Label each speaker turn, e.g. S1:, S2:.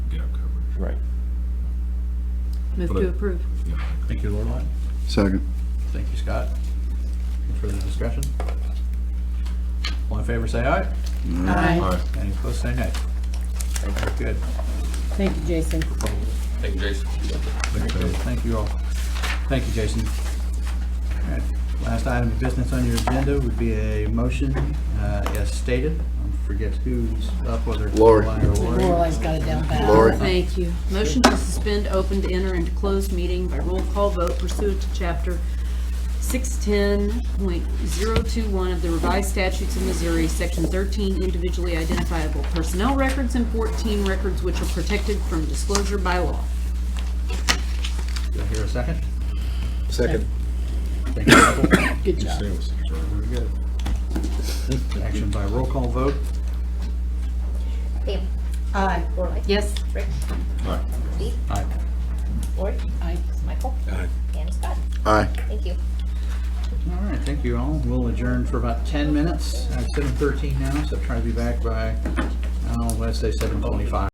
S1: Right.
S2: Move
S3: But I-
S2: to approve.
S4: Thank you, Lorelei.
S5: Second.
S4: Thank you, Scott. Any further discussion? All in favor, say aye.
S3: All right.
S4: Any opposed, say nay. Very Good.
S6: Thank you, Jason.
S7: Thank you, Jason.
S4: Very good. Thank you all. Thank you, Jason. All right. Last item of business on your agenda would be a motion, uh, as stated. I forget who's up, whether it's
S5: Lori.
S4: Lorelei or Lori.
S6: Lorelai's got it down pat.
S5: Lori.
S2: Thank you. Motion to suspend, open to enter into closed meeting by roll call vote pursuant to chapter 610.021 of the revised statutes of Missouri, section 13, individually identifiable personnel records, and 14, records which are protected from disclosure by law.
S4: Do I hear a second?
S1: Second.
S4: Thank you, Michael.
S6: Good job.
S4: Action by roll call vote.
S8: Bam.
S6: Aye.
S8: Lorelei.
S2: Yes?
S8: Rick.
S3: All right.
S8: Steve.
S4: Aye.
S8: Lori.
S6: Aye.
S8: Michael.
S1: Aye.
S8: And Scott.
S5: Aye.
S8: Thank you.
S4: All right, thank you all. We'll adjourn for about 10 minutes. Uh, It's 7:13 now, so try to be back by, I don't know, let's say 7:25.